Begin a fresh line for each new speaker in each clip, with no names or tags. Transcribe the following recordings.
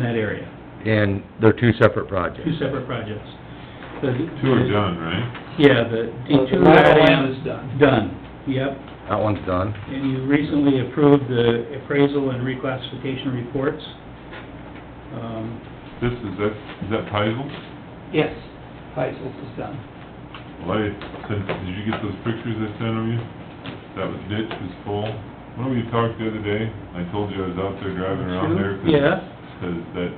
that area,
and they're two separate
two
projects.
separate projects. The-
Two are done, right?
Yeah, the D
Well, the
two
lateral
lateral
is
is
done.
done, yep.
That one's done.
And you recently approved the appraisal and reclassification reports. Um,
This is, that, is that Heisel?
Yes, Heisel's is done.
Well, I sent, did you get those pictures I sent of you? That was ditch was full. Remember you talked the other day? I told you I was out there driving around there. 'cause-
Yeah.
Cause that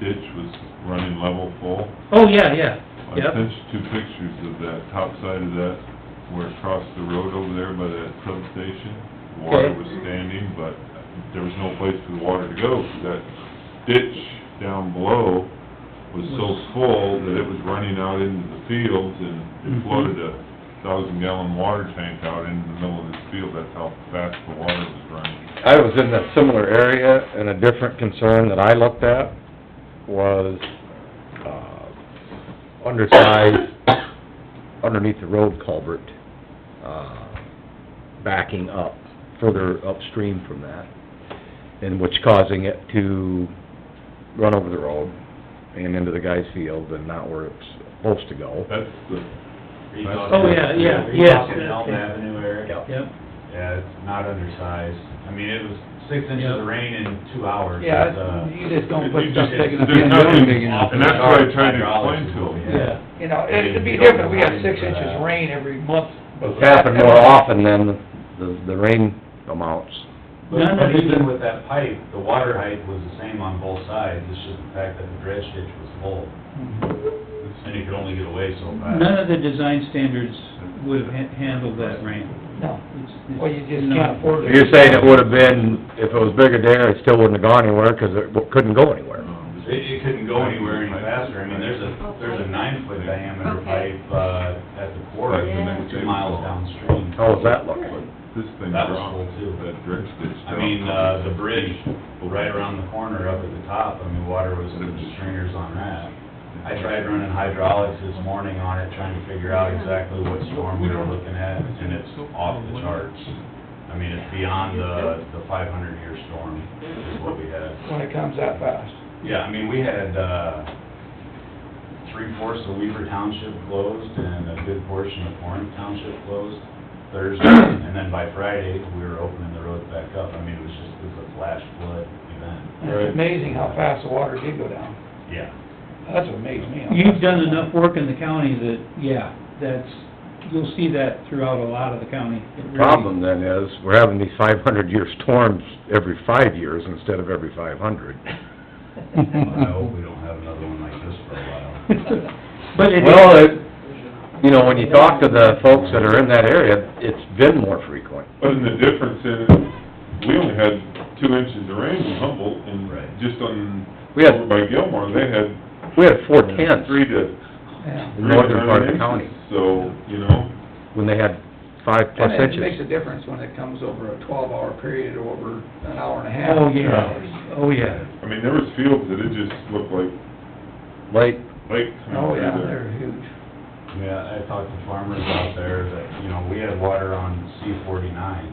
ditch was running level full.
Oh, yeah, yeah,
I
yep,
sent you two pictures of that top side of that, where it crossed the road over there by that substation. Water
Okay.
was standing, but there was no place for the water to go, 'cause that ditch down below was so
Was-
full that it was running out into the fields, and
Mhm.
it flooded a thousand gallon water tank out into the middle of this field, that's how fast the water was running.
I was in a similar area, and a different concern that I looked at was, uh, undersized, underneath the road culvert, uh, backing up, further upstream from that, and which causing it to run over the road and into the guy's field and not where it's supposed to go.
That's the,
Are you
That's-
talking-
Oh,
yeah, yeah,
Are you
yes,
talking
that's
Elm
it.
Avenue area?
yep.
Yeah, it's not undersized. I mean, it was six inches
Yeah.
of rain in two hours.
Yeah,
It's, uh,
it's- you just don't put
You
stuff
just-
big enough.
there's
in there.
nothing-
digging up.
and that's what I tried to explain to him.
Yeah,
You know, it'd be different, we have six inches rain every month.
It's happened more often than the, the rain amounts.
None
But
of
but
it-
even with that pipe, the water height was the same on both sides. It's just the fact that the dredge ditch was full, and you could only get away so
none
fast.
of the design standards would have han- handled that rain.
No,
It's- it's
well, you just
not-
can't afford it.
You're saying it would've been, if it was bigger there, it still wouldn't have gone anywhere, 'cause it w- couldn't go anywhere.
um,
It, it couldn't go anywhere any faster. I mean, there's a, there's a nine-foot diameter
Okay.
pipe, uh, at the quarry,
That's the next
two
thing.
miles downstream.
How does Oh, that look?
this thing
That was
dropped,
full, too.
that dredge ditch
I mean,
down.
uh, the bridge right around the corner up at the top, I mean, water was in the stringers on that. I tried running hydraulics this morning on it, trying to figure out exactly what storm we were looking at, and it's off the charts. I mean, it's beyond the, the five hundred year storm is what we had.
When it comes that fast.
Yeah, I mean, we had, uh, three-fourths of Weaver Township closed and a good portion of Warren Township closed Thursday. And then by Friday, we were opening the roads back up. I mean, it was just, it was a flash flood event.
And It's amazing how fast the water did go down.
Yeah.
That's what amazed me.
You've done enough work in the county that, yeah, that's, you'll see that throughout a lot of the county. It really-
Problem then is, we're having these five hundred year storms every five years instead of every five hundred.
Well, I hope we don't have another one like this for a while.
But it
Well,
is,
it, you know, when you talk to the folks that are in that area, it's been more frequent.
But the difference in, we only had two inches of rain in Humboldt, and
Right.
just on,
We had-
over by Gilmore, they had
We had four tenths
three to...
Yeah.
in northern part of the
three to nine
county,
inches. So, you know,
when they had five plus
And it makes
inches.
a difference when it comes over a twelve-hour period or over an hour and a half.
oh, yeah, oh, yeah.
I mean, there was fields that it just looked like
Like,
lakes. coming
Oh,
through
yeah,
there.
they're huge.
Yeah, I talked to farmers out there that, you know, we had water on C forty-nine.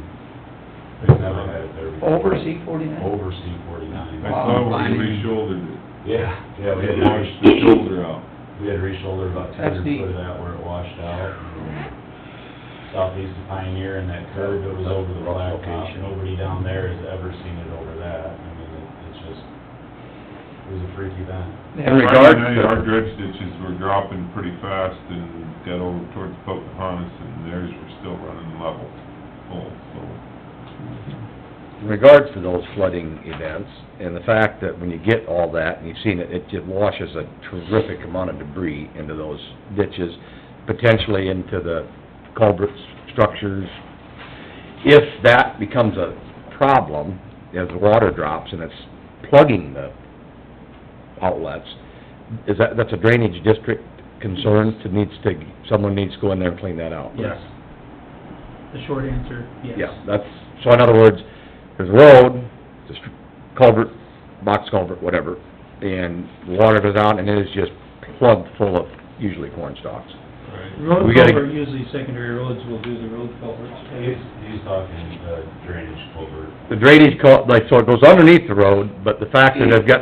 They've never had it there before.
Over C forty-nine?
Oh.
Over C forty-nine.
I
Wow,
saw where
blimey.
you re-shouldered it.
Yeah, yeah, we
It
had.
washed the shoulder out.
We had re-shouldered about two
That's
hundred
deep.
foot of that where it washed out. Southeast of Pioneer and that curve that was over the blacktop, nobody down there has ever seen it over that. I mean, it- it's just, it was a freak event.
in
Yeah.
regards
Friday
to-
night, our dredge ditches were dropping pretty fast and got over towards Pocahontas, and theirs were still running level, full, so...
in regards to those flooding events, and the fact that when you get all that, and you've seen it, it just washes a terrific amount of debris into those ditches, potentially into the culverts, structures. If that becomes a problem, as the water drops and it's plugging the outlets, is that, that's a drainage district concern, that needs to, someone needs to go in there and clean that out?
Yes. The short answer, yes.
Yeah, that's, so in other words, there's a road, there's culvert, box culvert, whatever, and water goes out and it is just plugged full of usually corn stalks.
right?
We
Road
gotta-
culvert, usually secondary roads will do the road culverts.
He's, he's talking uh, drainage culvert.
The drainage, cul- like, so it goes underneath the road, but the fact that they've got